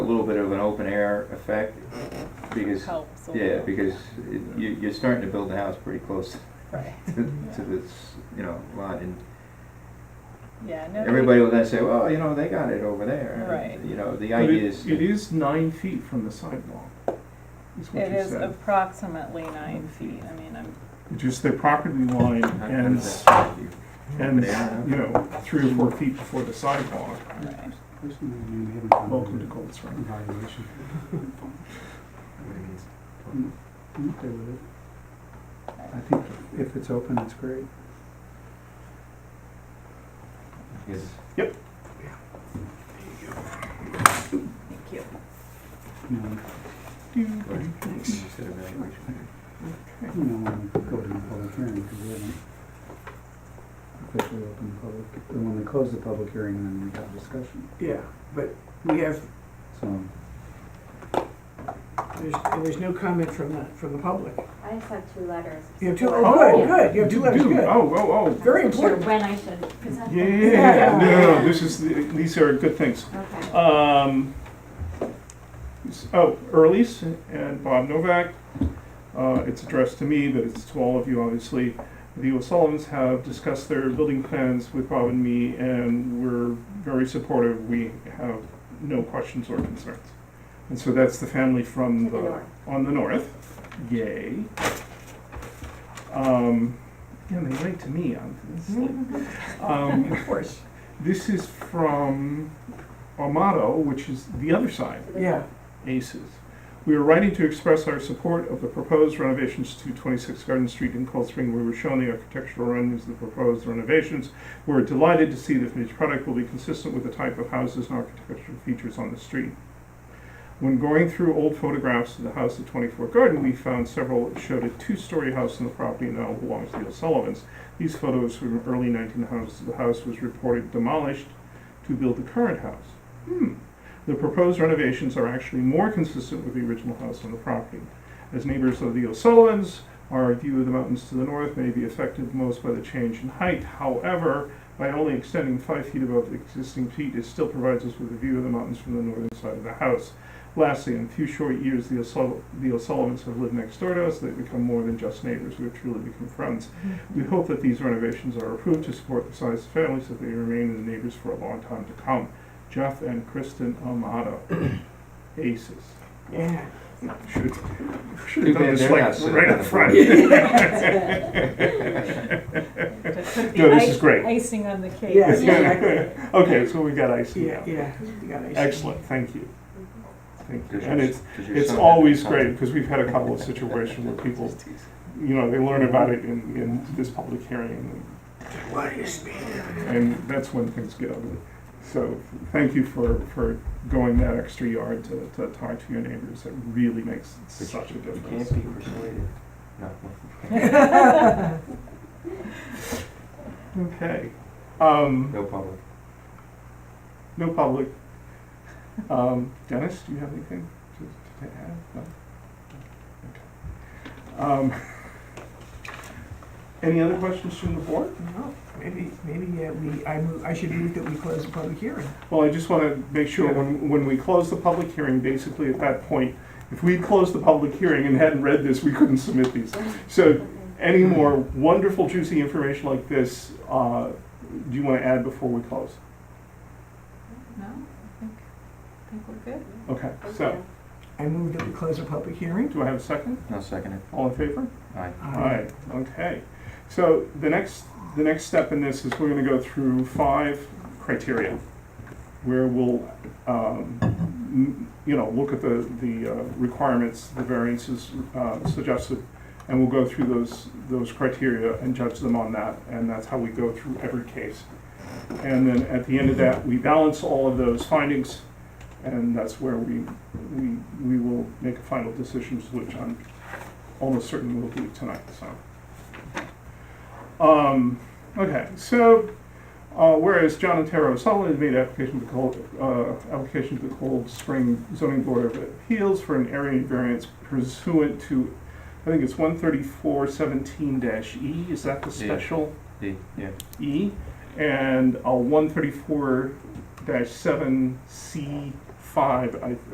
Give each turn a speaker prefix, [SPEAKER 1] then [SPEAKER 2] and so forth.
[SPEAKER 1] bit of an open air effect because,
[SPEAKER 2] helps a
[SPEAKER 1] yeah,
[SPEAKER 2] little.
[SPEAKER 1] because it- you, you're starting to build the house pretty close
[SPEAKER 2] Right,
[SPEAKER 1] to, to this, you know, lot and
[SPEAKER 2] yeah, no.
[SPEAKER 1] everybody will then say, well, you know, they got it over there.
[SPEAKER 2] Right.
[SPEAKER 1] You know, the
[SPEAKER 3] But
[SPEAKER 1] idea
[SPEAKER 3] it-
[SPEAKER 1] is,
[SPEAKER 3] It
[SPEAKER 1] to-
[SPEAKER 3] is nine feet from the sidewalk, is what
[SPEAKER 2] It
[SPEAKER 3] you
[SPEAKER 2] is
[SPEAKER 3] said.
[SPEAKER 2] approximately nine feet, I mean, I'm,
[SPEAKER 3] Which is their property line
[SPEAKER 1] How
[SPEAKER 3] and,
[SPEAKER 1] does that affect you?
[SPEAKER 3] and,
[SPEAKER 1] Yeah.
[SPEAKER 3] you know, three or four feet before the sidewalk.
[SPEAKER 2] right,
[SPEAKER 3] Welcome to Cold Spring.
[SPEAKER 4] Evaluation.
[SPEAKER 3] Mm.
[SPEAKER 4] I'm okay with it. I think if it's open, it's great.
[SPEAKER 1] Yes.
[SPEAKER 2] thank you.
[SPEAKER 4] You know,
[SPEAKER 1] Instead of evaluation.
[SPEAKER 4] you know, when we go to the public hearing, because we haven't officially opened the public, and when we close the public hearing, then we have discussion,
[SPEAKER 5] Yeah, but we have,
[SPEAKER 4] so.
[SPEAKER 5] there's, and there's no comment from the, from the public.
[SPEAKER 6] I just have two letters.
[SPEAKER 5] You have two,
[SPEAKER 3] Oh.
[SPEAKER 5] oh, good, good, you have two letters,
[SPEAKER 3] Dude,
[SPEAKER 5] good.
[SPEAKER 3] Oh, oh, oh.
[SPEAKER 5] Very
[SPEAKER 6] Or
[SPEAKER 5] important.
[SPEAKER 6] when I should present them.
[SPEAKER 3] Yeah, yeah, yeah, no, no, no, this is, the- these are good things.
[SPEAKER 6] Okay.
[SPEAKER 3] Um, s- oh, Earlies and Bob Novak. Uh, it's addressed to me, but it's to all of you, obviously. The O'Sullivans have discussed their building plans with Bob and me, and we're very supportive. We have no questions or concerns. And so that's the family from
[SPEAKER 6] To the
[SPEAKER 3] the,
[SPEAKER 6] north.
[SPEAKER 3] on the north. Yay. Um, yeah, they write to me. I'm, it's like- um,
[SPEAKER 5] Mm-hmm. Of course,
[SPEAKER 3] this is from Armato, which is the other side,
[SPEAKER 5] yeah.
[SPEAKER 3] ACES. We are writing to express our support of the proposed renovations to 26 Garden Street in Cold Spring. We were shown the architectural renderings of the proposed renovations. We're delighted to see that finished product will be consistent with the type of houses and architectural features on the street. When going through old photographs of the house at 24 Garden, we found several that showed a two-story house on the property now belongs to the O'Sullivans. These photos from early 1900s, the house was reported demolished to build the current house. Hmm. The proposed renovations are actually more consistent with the original house on the property. As neighbors of the O'Sullivans, our view of the mountains to the north may be affected most by the change in height. However, by only extending five feet above the existing peak, it still provides us with a view of the mountains from the northern side of the house. Lastly, in a few short years, the O'Sul- the O'Sullivans have lived next door to us. They've become more than just neighbors. We've truly become friends. We hope that these renovations are approved to support the size of families that they remain as neighbors for a long time to come. Jeff and Kristen Amato, aces.
[SPEAKER 5] Yeah.
[SPEAKER 3] Should, should
[SPEAKER 1] Too bad
[SPEAKER 3] have done this
[SPEAKER 1] they're not
[SPEAKER 3] like
[SPEAKER 1] sitting
[SPEAKER 3] right
[SPEAKER 1] on
[SPEAKER 3] up
[SPEAKER 1] the
[SPEAKER 3] front.
[SPEAKER 1] board.
[SPEAKER 2] To put
[SPEAKER 3] No,
[SPEAKER 2] the
[SPEAKER 3] this is
[SPEAKER 2] ice-
[SPEAKER 3] great.
[SPEAKER 2] Icing on the cake.
[SPEAKER 5] Yeah, exactly.
[SPEAKER 3] Okay, so we got icing
[SPEAKER 5] Yeah,
[SPEAKER 3] now.
[SPEAKER 5] yeah, you got it.
[SPEAKER 3] Excellent, thank you. Thank you.
[SPEAKER 1] Does your-
[SPEAKER 3] And it's,
[SPEAKER 1] does your
[SPEAKER 3] it's
[SPEAKER 1] son have
[SPEAKER 3] always
[SPEAKER 1] that
[SPEAKER 3] great,
[SPEAKER 1] comment?
[SPEAKER 3] because we've had a couple of situations where people, you know, they learn about it in, in this public hearing,
[SPEAKER 5] Why is me?
[SPEAKER 3] and that's when things get ugly. So, thank you for, for going that extra yard to, to talk to your neighbors, it really makes
[SPEAKER 1] But
[SPEAKER 3] such a
[SPEAKER 1] you
[SPEAKER 3] difference.
[SPEAKER 1] Can't be persuaded. No.
[SPEAKER 3] Okay, um,
[SPEAKER 1] No public.
[SPEAKER 3] no public. Um, Dennis, do you have anything to, to add? No? Okay. Um, any other questions from the board?
[SPEAKER 5] No, maybe, maybe, uh we, I move, I should move that we close the public hearing.
[SPEAKER 3] Well, I just want to make sure, when, when we close the public hearing, basically at that point, if we closed the public hearing and hadn't read this, we couldn't submit these. So any more wonderful juicy information like this, uh, do you want to add before we close?
[SPEAKER 2] No, I think, I think we're good.
[SPEAKER 3] Okay,
[SPEAKER 6] Thank
[SPEAKER 3] so,
[SPEAKER 6] you.
[SPEAKER 5] I move that we close the public hearing.
[SPEAKER 3] do I have a second?
[SPEAKER 1] I'll second it.
[SPEAKER 3] All in favor?
[SPEAKER 1] Aye.
[SPEAKER 3] All right, okay. So the next, the next step in this is we're gonna go through five criteria where we'll, um, m- you know, look at the, the uh, requirements, the variances uh, suggested, and we'll go through those, those criteria and judge them on that, and that's how we go through every case. And then at the end of that, we balance all of those findings, and that's where we, we, we will make a final decision, which I'm almost certain we will do tonight, so. Um, okay, so, uh, whereas John and Tara O'Sullivan has made application to Cold, uh, application to the Cold Spring Zoning Board of Appeals for an area variance pursuant to, I think it's one thirty-four seventeen dash E, is that the
[SPEAKER 1] Yeah.
[SPEAKER 3] special?
[SPEAKER 1] D, yeah.
[SPEAKER 3] E, and a one thirty-four dash seven C five, I